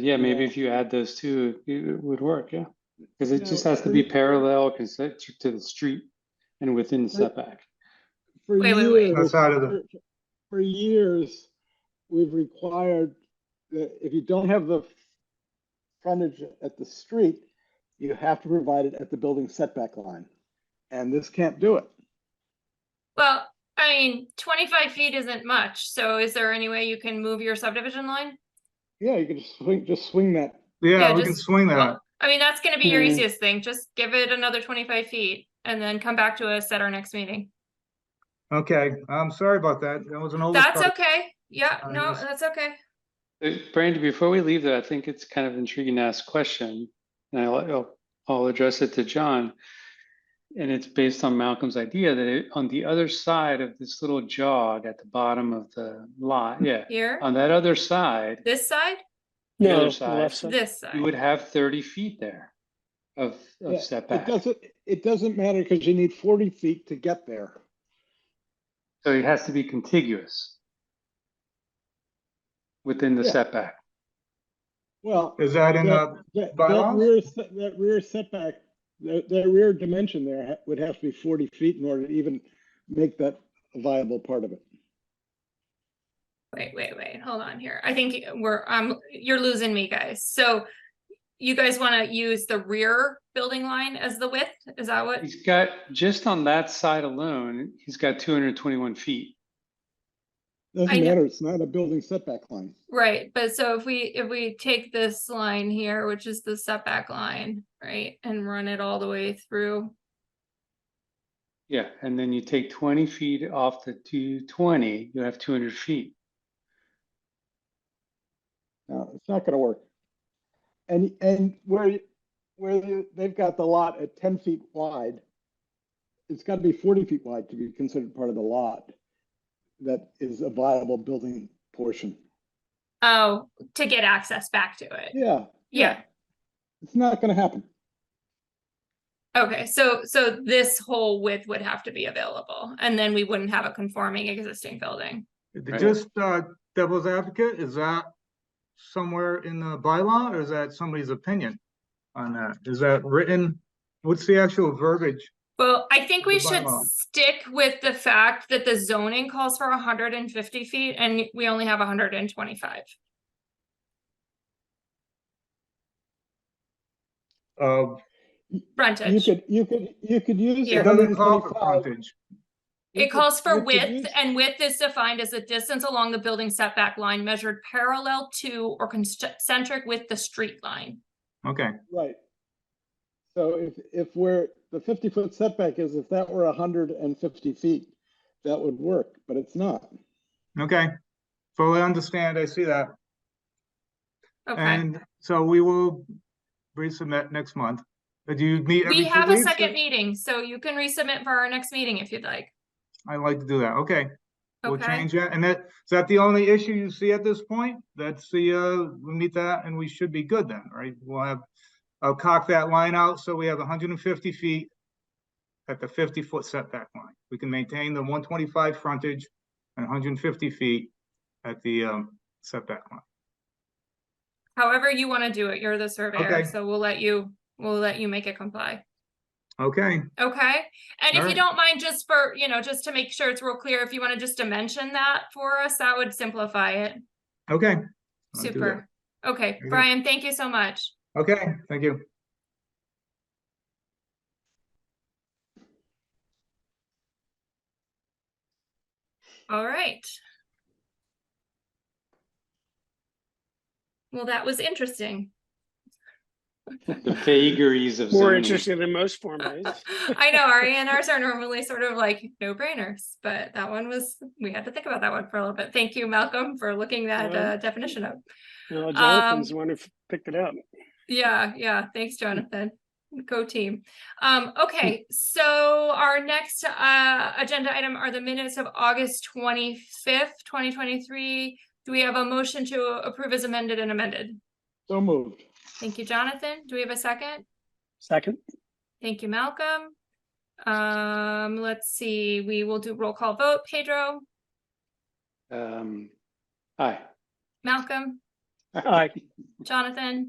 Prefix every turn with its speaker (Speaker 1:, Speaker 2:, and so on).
Speaker 1: Yeah, maybe
Speaker 2: Yeah.
Speaker 1: if you add those two, it it would work, yeah, because it
Speaker 2: No,
Speaker 1: just has to
Speaker 2: we-
Speaker 1: be parallel, concentric to the street and within the
Speaker 2: But-
Speaker 1: setback.
Speaker 2: For
Speaker 3: Wait, wait, wait.
Speaker 2: years,
Speaker 4: Outside of the-
Speaker 2: for for years, we've required that if you don't have the frontage at the street, you have to provide it at the building setback line. And this can't do it.
Speaker 3: Well, I mean, twenty-five feet isn't much, so is there any way you can move your subdivision line?
Speaker 2: Yeah, you can just swing, just swing that.
Speaker 3: Yeah,
Speaker 4: Yeah, we can
Speaker 3: just-
Speaker 4: swing that.
Speaker 3: Well, I mean, that's gonna be your
Speaker 1: Hmm.
Speaker 3: easiest thing, just give it another twenty-five feet and then come back to us at our next meeting.
Speaker 4: Okay, I'm sorry about that. That was an
Speaker 3: That's
Speaker 4: oversight.
Speaker 3: okay, yeah,
Speaker 4: I
Speaker 3: no,
Speaker 4: was-
Speaker 3: that's okay.
Speaker 1: Uh, Brandon, before we leave though, I think it's kind of intriguing to ask question, and I'll, I'll- I'll address it to John. And it's based on Malcolm's idea that it- on the other side of this little jog at the bottom of the lot, yeah,
Speaker 3: Here,
Speaker 1: on that other side,
Speaker 3: this side,
Speaker 1: the
Speaker 5: No,
Speaker 1: other
Speaker 5: the
Speaker 1: side,
Speaker 5: left side.
Speaker 3: this
Speaker 1: you
Speaker 3: side,
Speaker 1: would have thirty feet there of,
Speaker 2: Yeah,
Speaker 1: of
Speaker 2: It
Speaker 1: setback.
Speaker 2: doesn't, it doesn't matter because you need forty feet to get there.
Speaker 1: So it has to be contiguous within the
Speaker 2: Yeah.
Speaker 1: setback.
Speaker 2: Well,
Speaker 4: Is that in
Speaker 2: that,
Speaker 4: the,
Speaker 2: that that
Speaker 4: bylaws?
Speaker 2: rear, se- that rear setback, that, that rear dimension there ha- would have to be forty feet in order to even make that a viable part of it.
Speaker 3: wait, wait, wait, hold on here, I think we're, um, you're losing me, guys, so. You guys wanna use the rear building line as the width, is that what?
Speaker 1: He's got, just on that side alone, he's got two hundred and twenty-one feet.
Speaker 3: I
Speaker 2: Doesn't
Speaker 3: know-
Speaker 2: matter, it's not a building setback line.
Speaker 3: Right, but so if we, if we take this line here, which is the setback line, right, and run it all the way through.
Speaker 1: Yeah, and then you take twenty feet off the two twenty, you have two hundred feet.
Speaker 2: No, it's not gonna work. And, and where, you- where you- they've got the lot at ten feet wide, it's gotta be forty feet wide to be considered part of the lot. That is a viable building portion.
Speaker 3: Oh, to get access back to it.
Speaker 2: Yeah,
Speaker 3: Yeah,
Speaker 2: it's not gonna happen.
Speaker 3: okay, so, so this whole width would have to be available, and then we wouldn't have a conforming existing building.
Speaker 1: Right.
Speaker 4: just uh, devil's advocate, is that somewhere in the bylaw or is that somebody's opinion on that? Is that written? What's the actual verbiage?
Speaker 3: Well, I think we
Speaker 4: The
Speaker 3: should
Speaker 4: bylaw.
Speaker 3: stick with the fact that the zoning calls for hundred and fifty feet, and we only have hundred and twenty-five.
Speaker 4: Uh,
Speaker 2: You
Speaker 3: Frontage,
Speaker 2: could, you could, you could use.
Speaker 3: Here.
Speaker 4: it doesn't call for
Speaker 2: 125.
Speaker 4: frontage.
Speaker 2: You
Speaker 3: it
Speaker 2: could-
Speaker 3: calls
Speaker 2: you
Speaker 3: for
Speaker 2: could
Speaker 3: width,
Speaker 2: use-
Speaker 3: and width is defined as the distance along the building setback line measured parallel to or concentric with the street line.
Speaker 4: Okay,
Speaker 2: Right. So if, if we're, the fifty foot setback is, if that were hundred and fifty feet, that would work, but it's not.
Speaker 4: okay. Fully understand. I see that.
Speaker 3: Okay,
Speaker 4: And so we will resubmit next month. Uh, Do you meet every
Speaker 3: we
Speaker 4: two
Speaker 3: have a
Speaker 4: weeks?
Speaker 3: second meeting, so you can resubmit for our next meeting if you'd like.
Speaker 4: I like to do that. Okay. We'll
Speaker 3: Okay,
Speaker 4: change that, and that, is that the only issue you see at this point? That's the, uh, we meet that and we should be good then, right? We'll have, I'll cock that line out, so we have hundred and fifty feet at the fifty foot setback line. We can maintain the one twenty-five frontage and hundred and fifty feet at the, um, setback line.
Speaker 3: however you want to do it, you're the surveyor,
Speaker 4: Okay.
Speaker 3: so we'll let you, we'll let you make it comply.
Speaker 4: Okay,
Speaker 3: Okay, and if you
Speaker 4: Alright.
Speaker 3: don't mind, just for, you know, just to make sure it's real clear, if you want to just dimension that for us, that would simplify it.
Speaker 4: okay. I'll do that.
Speaker 3: Super. Okay,
Speaker 4: Okay.
Speaker 3: Brian, thank you so much.
Speaker 4: Okay, thank you.
Speaker 3: All right. Well, that was interesting.
Speaker 1: The vagaries of
Speaker 5: More
Speaker 1: zoning.
Speaker 5: interesting than most Form As.
Speaker 3: I know our ANRs are normally sort of like no brainers, but that one was, we had to think about that one for a little bit. Thank you, Malcolm, for looking that
Speaker 5: Well-
Speaker 3: uh, definition up.
Speaker 5: Well, Jonathan's the one who f- picked it up.
Speaker 3: Yeah, yeah, thanks,
Speaker 2: Hmm.
Speaker 3: Jonathan. Go team. Um, okay, so our next uh agenda item are the minutes of August twenty-fifth, twenty twenty-three. Do we have a motion to approve as amended and amended?
Speaker 2: So moved.
Speaker 3: Thank you, Jonathan. Do we have a second?
Speaker 5: Second,
Speaker 3: Thank you, Malcolm. Um, let's see, we will do roll call vote. Pedro,
Speaker 1: Um, aye.
Speaker 3: Malcolm,
Speaker 5: Aye.
Speaker 3: Jonathan?